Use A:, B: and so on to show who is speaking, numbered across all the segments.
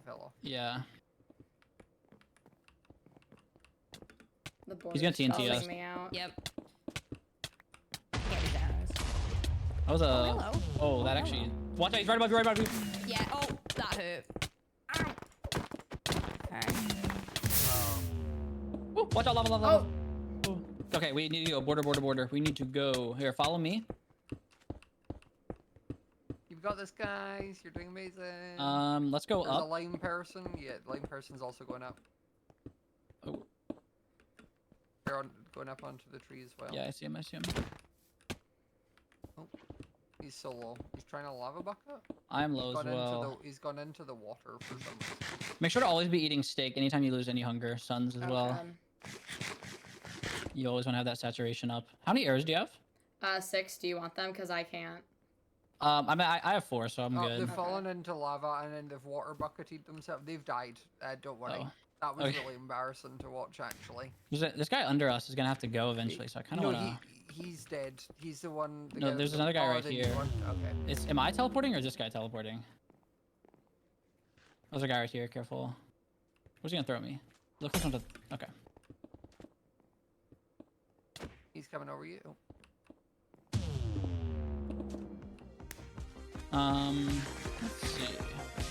A: pillow.
B: Yeah.
C: The board
B: gonna
C: is
B: TNT
C: calling
B: us.
C: me out.
D: Yep. Can't do that.
B: That was a.
D: Oh, hello.
B: oh, that
D: Oh,
B: actually. Watch out! He's right above you. Right above you.
D: Yeah. Oh, that hurt. Ow. Okay.
B: Ooh, watch out! Lava! Lava!
C: Oh,
B: lava. Ooh. Okay, we need to go border, border, border. We need to go here. Follow me.
A: You've got this, guys. You're doing amazing.
B: Um, let's go
A: There's a
B: up.
A: lame person. Yeah, lame person's also going up.
B: Oh.
A: They're on, going up onto the tree as well.
B: Yeah, I see him. I see him.
A: He's so low. He's trying to lava bucket.
B: I'm
A: He's
B: low as
A: gone
B: well.
A: into the, he's gone into the water for some reason.
B: Make sure to always be eating steak anytime you lose any hunger. Suns as
C: oh,
B: well.
C: God.
B: You always want to have that saturation up. How many arrows do you have?
C: Uh, six. Do you want them? Cause I can't.
B: Um, I mean, I, I have four, so I'm
A: Oh,
B: good.
A: they've
C: Okay.
A: fallen into lava and then they've water bucketed themselves. They've died. Uh, don't worry.
B: Oh.
A: That was
B: Okay.
A: really embarrassing to watch, actually.
B: There's a- This guy under us is gonna have to go eventually, so I kind of
A: no,
B: wanna.
A: he, he's dead. He's the one. The
B: No,
A: guy that
B: there's
A: was-
B: another guy
A: oh,
B: right
A: the new
B: here.
A: one, Okay.
B: It's am I teleporting or is this guy teleporting? Oh, There's a guy right here. Careful. What's he gonna throw at me? Look who's on the. Okay.
A: He's coming over you. Oh,
B: Um. Let's see.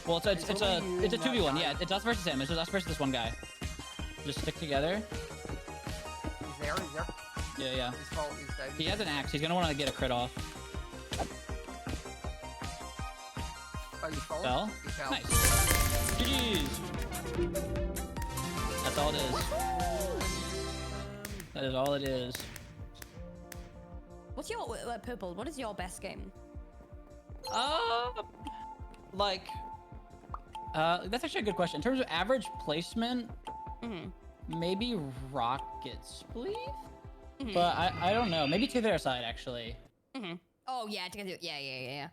B: Well, it's a it's,
A: It's
B: it's
A: only
B: a
A: you
B: it's a
A: and
B: two v one.
A: that
B: Yeah,
A: guy.
B: it's us versus him. It's just us versus this one guy. Just stick together.
A: He's there. He's there.
B: Yeah, yeah.
A: He's fallen. He's dead.
B: He has an axe. He's gonna want to get a crit off.
A: Oh, he's fallen.
B: Fell.
A: He fell.
B: Nice. GGs. That's all it is. That is all it is.
D: What's your uh, purple? What is your best game?
B: Um, like, uh, that's actually a good question. In terms of average placement,
D: Mm-hmm.
B: maybe rockets, please. But I, I don't know. Maybe to their side actually.
D: Oh yeah, to get it- yeah, yeah, yeah, yeah.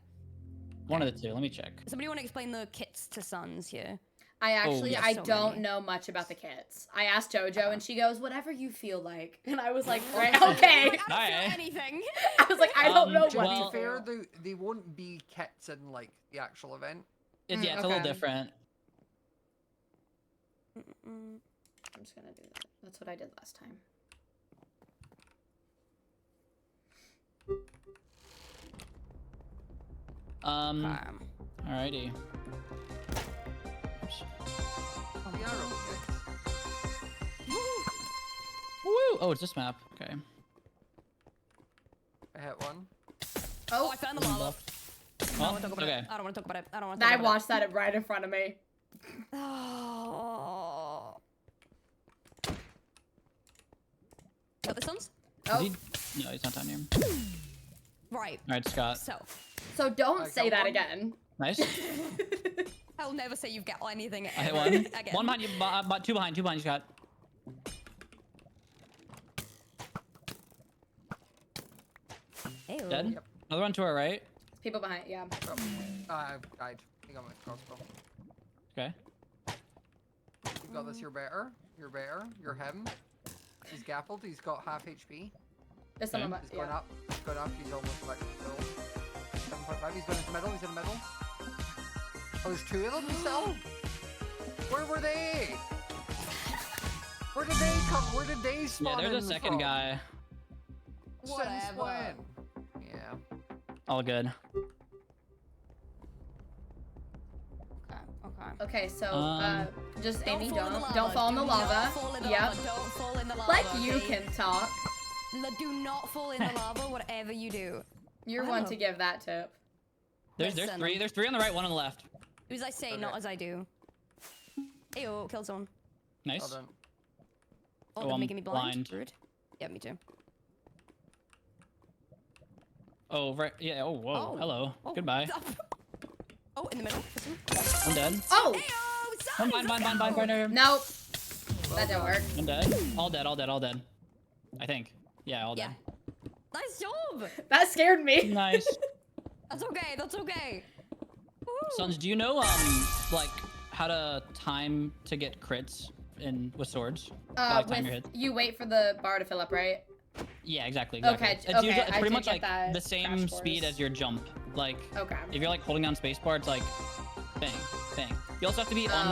B: One of the two. Let me check.
D: Somebody want to explain the kits to sons here?
C: I actually
B: Oh, yeah.
C: I
D: So
C: don't
D: many.
C: know much about the kits. I asked JoJo and she goes, "Whatever you feel like," and I was like, "Right, okay."
D: I don't feel
B: Hi.
D: anything.
C: I was like, "I don't
B: Um,
C: know
A: To
C: what
B: well-
C: to
A: be fair,
C: feel."
A: they, they won't be kits in like the actual event.
B: It's,
C: Mm,
B: yeah, it's a little
C: okay.
B: different.
D: Mm-mm.
C: I'm just gonna do that. That's what I did last time.
B: Um,
D: Um,
B: alrighty. Oops.
A: They are all kits.
B: Woo! Oh, it's this map. Okay.
A: I hit one.
D: oh, I found the lava. I
B: Well,
D: don't want to talk about
B: okay.
D: it. I don't want to talk about it. I don't want to.
C: I watched that right in front of me.
D: Oh. Got this ones?
C: Oh,
B: Is he- No, he's not down here.
D: Right.
B: All right, Scott.
D: So,
C: so don't
A: I got
C: say that
A: one.
C: again.
B: Nice.
D: I'll never say you've got anything.
B: I hit
D: ever
B: one.
D: Again.
B: One behind you. bu- uh, bu- two behind. Two behind you, Scott.
D: Ew.
B: Dead.
A: Yep.
B: Another one to our right.
C: People behind, yeah.
A: Oh, I died. I got my crossbow.
B: Okay.
A: You've got this. You're better. You're better. You're him. He's gappled. He's got half HP.
C: There's someone
B: Okay.
C: behi-
A: He's gone up. He's gone up. He's almost like full. 7.5. He's going into the middle. He's in the middle. Oh, there's two of them still? Where were they? Where did they come? Where did they
B: Yeah,
A: spawn
B: there's a
A: in
B: second
A: from?
B: guy.
A: Since
D: Whatever.
A: when? Yeah.
B: All good.
D: Okay. Okay.
C: yeah. Okay, so
B: Um,
C: uh, just Amy,
D: fall in the
C: don't
D: lava.
C: don't fall in the
D: Do not
C: lava.
D: fall in the
C: Yep.
D: lava. Don't fall in the lava.
C: Like you
D: okay?
C: can talk.
D: L- Do not fall in the lava, whatever you do.
C: You're
D: I
C: one
D: don't
C: to
D: know.
C: give that tip.
B: There's there's
D: Listen.
B: three. There's three on the right. One on the left.
D: Do as I say, not
A: Okay.
D: as I do. Ew, killed someone.
B: Nice.
A: Hold on.
D: Oh,
B: Oh,
D: they're
B: I'm
D: making me blind.
B: blind.
D: Rude. Yeah, me too.
B: Oh right. Yeah. Oh whoa.
D: Oh.
B: Hello.
D: Oh,
B: Goodbye.
D: stop. Oh, in the middle.
B: I'm dead.
C: Oh,
D: Ew,
B: I'm fine.
D: sorry,
B: Fine.
D: let's
B: Fine. Fine.
D: go.
B: Fine. fine.
C: nope. That didn't work.
B: I'm dead. All dead. All dead. All dead. I think. Yeah. All
D: Yeah.
B: dead.
D: Nice job.
C: That scared me.
B: Nice.
D: That's okay. That's okay. Woo.
B: Sons, do you know um like how to time to get crits in with swords?
C: Uh,
B: like time your
C: with,
B: hits.
C: you wait for the bar to fill up, right?
B: Yeah. Exactly.
C: Okay,
B: exactly.
C: j-
B: It's, usually-
C: okay,
B: it's
C: I
B: pretty
C: did
B: much
C: get
B: like
C: that
B: the same
C: Crash
B: speed
C: Course.
B: as your jump. Like
C: Okay.
B: if you're like holding down spacebar, it's like bang, bang. You also have to be on